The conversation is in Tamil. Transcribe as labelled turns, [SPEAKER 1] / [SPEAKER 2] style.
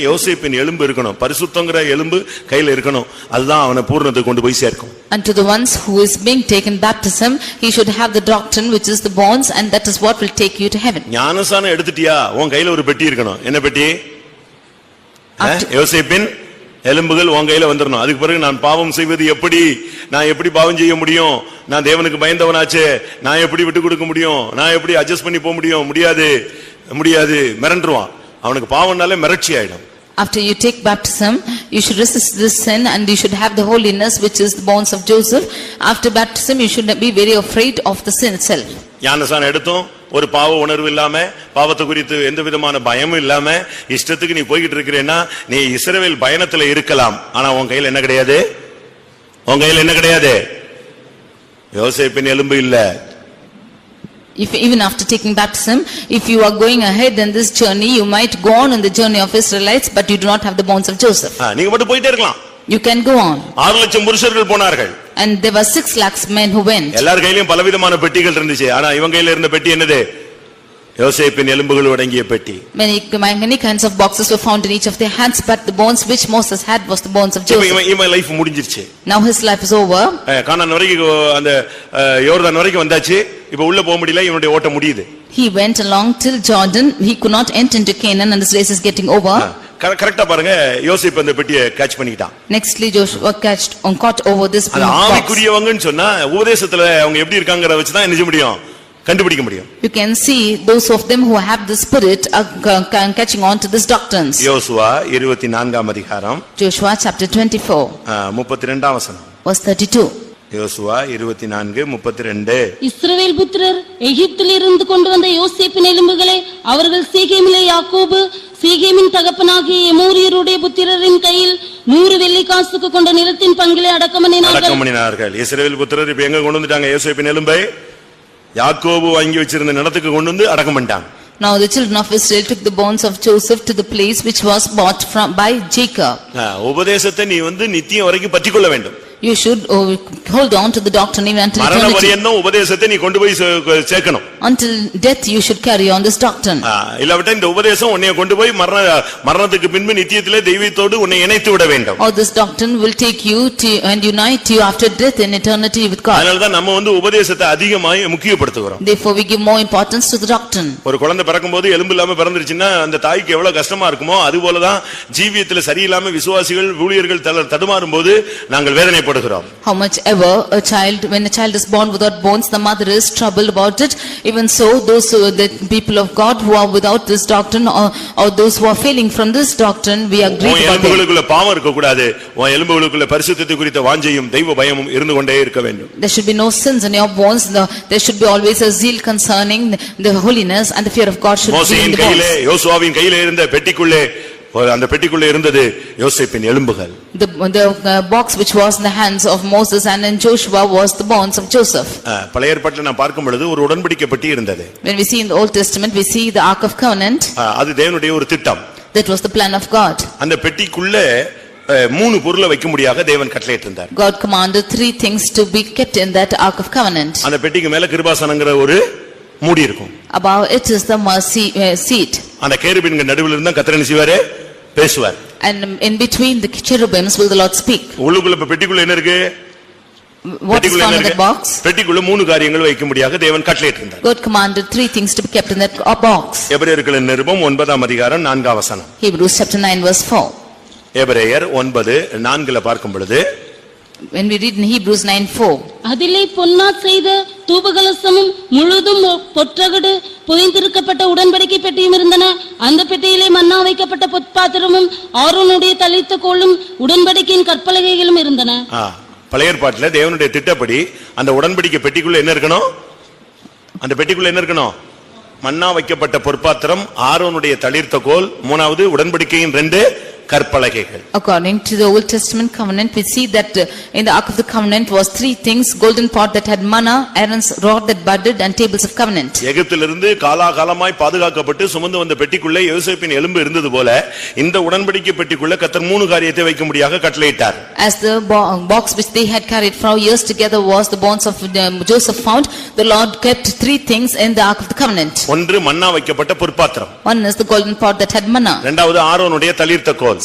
[SPEAKER 1] யோசேப்பின் எலும்பு இருக்கணும் பரிசுத்தங்கிற எலும்பு கையில இருக்கணும் அதுதான் அவனை பூர்ணத்துக்கு கொண்டு போய் சேர்க்கும்
[SPEAKER 2] And to the ones who is being taken baptism, he should have the doctrine which is the bonds and that is what will take you to heaven.
[SPEAKER 1] ஞானசானம் எடுத்துட்டியா உன் கையில ஒரு பெட்டி இருக்கணும் என்ன பெட்டி ஆ? யோசேப்பின் எலும்புகள் உன் கையில வந்துடணும் அதுக்கு பிறகு நான் பாவம் செய்வது எப்படி நான் எப்படி பாவம் செய்ய முடியும் நான் தேவனுக்கு பயந்தவனாச்சே நான் எப்படி விட்டு கொடுக்க முடியும் நான் எப்படி அட்ஜஸ்ட் பண்ணி போக முடியும் முடியாது முடியாது மிரண்டுருவான் அவனுக்கு பாவம்னாலே மிரட்சி ஆயிடும்
[SPEAKER 2] After you take baptism, you should resist this sin and you should have the holiness which is the bonds of Joseph. After baptism, you should be very afraid of the sin itself.
[SPEAKER 1] ஞானசானம் எடுத்தும் ஒரு பாவ உணர்வு இல்லாம பாவத்தை குறித்து எந்த விதமான பயமும் இல்லாம இஷ்டத்துக்கு நீ போய்கிட்டு இருக்கிறேன்னா நீ இஸ்ரவேல் பயணத்துல இருக்கலாம் ஆனா உன் கையில என்ன கிடையாது உன் கையில என்ன கிடையாது யோசேப்பின் எலும்பு இல்ல
[SPEAKER 2] If even after taking baptism, if you are going ahead in this journey, you might go on in the journey of Israelites, but you do not have the bonds of Joseph.
[SPEAKER 1] ஆ, நீங்க மட்டும் போயிட்டே இருக்கலாம்
[SPEAKER 2] You can go on.
[SPEAKER 1] ஆறு லட்சம் புருஷர்கள் போனார்கள்
[SPEAKER 2] And there were six lakhs men who went.
[SPEAKER 1] எல்லார் கையிலயும் பலவிதமான பெட்டிகள் இருந்துச்சு ஆனா இவன் கையில இருந்த பெட்டி என்னது யோசேப்பின் எலும்புகள் அடங்கிய பெட்டி
[SPEAKER 2] Many, many kinds of boxes were found in each of their hands, but the bones which Moses had was the bones of
[SPEAKER 1] இப்ப
[SPEAKER 2] Joseph.
[SPEAKER 1] இவன் இவன் லைஃப் முடிஞ்சிருச்சு
[SPEAKER 2] Now his life is over.
[SPEAKER 1] ஆ, கானான் வரைக்கும் அந்த ஆ, யோர்தான் வரைக்கும் வந்தாச்சு இப்ப உள்ள போக முடியல இவனுடைய ஓட்டம் முடியுது
[SPEAKER 2] He went along till Jordan. He could not enter into Canaan and his race is getting over.
[SPEAKER 1] கர- கரெக்டா பாருங்க யோசிப்பு அந்த பெட்டியை கேட்ச் பண்ணிக்கிட்டான்
[SPEAKER 2] Nextly Joshua catched on caught over this
[SPEAKER 1] அது
[SPEAKER 2] box.
[SPEAKER 1] ஆவிக்குரியவங்கன்னு சொன்னா உபதேசத்துல அவங்க எப்படி இருக்காங்கறத வச்சு தான் என்ன செய்ய முடியும் கண்டுபிடிக்க முடியும்
[SPEAKER 2] You can see those of them who have the spirit are ca- ca- catching on to this doctrines.
[SPEAKER 1] யோசுவா இருபத்தி நான்காம் அதிகாரம்
[SPEAKER 2] Joshua chapter twenty-four
[SPEAKER 1] முப்பத்தி ரெண்டாம் வசனம்
[SPEAKER 2] verse thirty-two.
[SPEAKER 1] யோசுவா இருபத்தி நான்கு முப்பத்தி ரெண்டு
[SPEAKER 3] இஸ்ரவேல் புத்திரர் எகிப்தில் இருந்து கொண்டு வந்த யோசேப்பின் எலும்புகளை அவர்கள் சீகேமிலே யாக்கோபு சீகேமின் தகப்பனாகிய எமோரியருடைய புத்திரரின் கையில் நூறு வெள்ளி காசுக்கு கொண்ட நிலத்தின் பங்கிலே அடக்கமனினார்கள்
[SPEAKER 1] அடக்கம் பண்ணினார்கள் இஸ்ரவேல் புத்திரர் இப்ப எங்க கொண்டு வந்துட்டாங்க யோசேப்பின் எலும்பை யாக்கோபு வாங்கி வச்சிருந்த நிலத்துக்கு கொண்டு வந்து அடக்கம் பண்ணிட்டாங்க
[SPEAKER 2] Now the children of Israel took the bones of Joseph to the place which was bought from by Jacob.
[SPEAKER 1] ஆ, உபதேசத்தை நீ வந்து நித்தியம் வரைக்கும் பற்றி கொள்ள வேண்டும்
[SPEAKER 2] You should oh, hold on to the doctrine even until
[SPEAKER 1] மரண
[SPEAKER 2] eternity.
[SPEAKER 1] பரியந்தம் உபதேசத்தை நீ கொண்டு போய் சே- சேர்க்கணும்
[SPEAKER 2] Until death you should carry on this doctrine.
[SPEAKER 1] ஆ, இல்லாவிட்டா இந்த உபதேசம் உன்னை கொண்டு போய் மரண மரணத்துக்கு பின்பு நித்தியத்திலே தெய்வத்தோடு உன்னை இணைத்து விட வேண்டும்
[SPEAKER 2] Or this doctrine will take you to and unite you after death in eternity with God.
[SPEAKER 1] அதனாலதான் நம்ம வந்து உபதேசத்தை அதிகமாய் முக்கியப்படுத்துகிறோம்
[SPEAKER 2] Therefore we give more importance to the doctrine.
[SPEAKER 1] ஒரு குழந்தை பிறக்கும்போது எலும்பு இல்லாம பிறந்துருச்சுன்னா அந்த தாய்க்கு எவ்வளவு கஷ்டமா இருக்குமோ அது போலதான் ஜீவியத்துல சரியில்லாம விசுவாசிகள் ஊழியர்கள் தள- தடுமாறும் போது நாங்கள் வேதனைப்படுகிறோம்
[SPEAKER 2] How much ever a child, when a child is born without bones, the mother is troubled about it. Even so, those who, the people of God who are without this doctrine or, or those who are failing from this doctrine, we are
[SPEAKER 1] உன்
[SPEAKER 2] grieved about them.
[SPEAKER 1] எலும்புகளுக்குள்ள பாவம் இருக்கக்கூடாது உன் எலும்புகளுக்குள்ள பரிசுத்தத்தை குறித்த வாஞ்சையும் தெய்வ பயமும் இருந்து கொண்டே இருக்க வேண்டும்
[SPEAKER 2] There should be no sins in your bones, The- there should be always a zeal concerning the holiness and the fear of God should be in
[SPEAKER 1] மோசையின்
[SPEAKER 2] the bones.
[SPEAKER 1] கையிலே யோசுவாவின் கையிலே இருந்த பெட்டிக்குள்ளே ஒரு- அந்த பெட்டிக்குள்ளே இருந்தது யோசேப்பின் எலும்புகள்
[SPEAKER 2] The, the uh, box which was in the hands of Moses and in Joshua was the bonds of Joseph.
[SPEAKER 1] அஹ், பழைய ஏற்பாட்டில் நான் பார்க்கும் பொழுது ஒரு உடன்படிக்கை பெட்டி இருந்தது
[SPEAKER 2] When we see in the Old Testament, we see the Ark of Covenant,
[SPEAKER 1] அஹ், அது தேவனுடைய ஒரு திட்டம்
[SPEAKER 2] that was the plan of God.
[SPEAKER 1] அந்த பெட்டிக்குள்ள அஹ், மூணு பொருளை வைக்க முடியாத தேவன் கட்டளையிட்டு இருந்தார்
[SPEAKER 2] God commanded three things to be kept in that Ark of Covenant.
[SPEAKER 1] அந்த பெட்டிக்கு மேல கிருபாசனங்கிற ஒரு மூடி இருக்கும்
[SPEAKER 2] Above it is the mercy uh, seat,
[SPEAKER 1] அந்த கேருபின்க நடுவில் இருந்தா கத்திரன் செய்வாரு பேசுவார்
[SPEAKER 2] and in between the cherubims will the Lord speak.
[SPEAKER 1] உள்ளுக்குள்ள இப்ப பெட்டிக்குள்ள என்ன இருக்கு
[SPEAKER 2] What is
[SPEAKER 1] பெட்டிக்குள்ள
[SPEAKER 2] found
[SPEAKER 1] என்ன
[SPEAKER 2] in the
[SPEAKER 1] இருக்கு?
[SPEAKER 2] box?
[SPEAKER 1] பெட்டிக்குள்ள மூணு காரியங்கள் வைக்க முடியாத தேவன் கட்டளையிட்டு இருந்தார்
[SPEAKER 2] God commanded three things to be kept in that uh, box.
[SPEAKER 1] எபிரேயர்களின் நிருபம் ஒன்பதாம் அதிகாரம் நான்காம் வசனம்
[SPEAKER 2] Hebrews chapter 9 verse 4.
[SPEAKER 1] எபிரேயர் ஒன்பது நான்குல பார்க்கும் பொழுது
[SPEAKER 2] When we read in Hebrews 9 4.
[SPEAKER 3] அதிலே பொன்னா செய்த தூபகலசமும் முழுதும் ஒ- பொற்றகடு புதைந்திருக்கப்பட்ட உடன்படிக்கை பெட்டியும் இருந்தன அந்த பெட்டியிலே மன்னா வைக்கப்பட்ட பொற்பாத்திரமும் ஆரோனுடைய தளித்த கோலும் உடன்படிக்கையின் கற்பலகைகளும் இருந்தன
[SPEAKER 1] ஆ, பழைய ஏற்பாட்டுல தேவனுடைய திட்டப்படி அந்த உடன்படிக்கை பெட்டிக்குள்ள என்ன இருக்கணும் அந்த பெட்டிக்குள்ள என்ன இருக்கணும் மன்னா வைக்கப்பட்ட பொற்பாத்திரம் ஆரோனுடைய தளிர்த்த கோல் மூணாவது உடன்படிக்கையின் ரெண்டு கற்பலகைகள்
[SPEAKER 2] According to the Old Testament covenant, we see that uh, in the Ark of the Covenant was three things, golden pot that had manna, Aaron's rod that budded and tables of covenant.
[SPEAKER 1] எகிப்திலிருந்து காலாகாலமாய் பாதுகாக்கப்பட்டு சுமந்து வந்த பெட்டிக்குள்ளே யோசேப்பின் எலும்பு இருந்தது போல இந்த உடன்படிக்கை பெட்டிக்குள்ள கத்தர் மூணு காரியத்தை வைக்கும்படியாக கட்டளையிட்டார்
[SPEAKER 2] As the bo- uh, box which they had carried for years together was the bonds of um, Joseph found, the Lord kept three things in the Ark of the Covenant.
[SPEAKER 1] ஒன்று மன்னா வைக்கப்பட்ட பொற்பாத்திரம்
[SPEAKER 2] One is the golden pot that had manna.
[SPEAKER 1] இரண்டாவது ஆரோனுடைய தளிர்த்த கோல்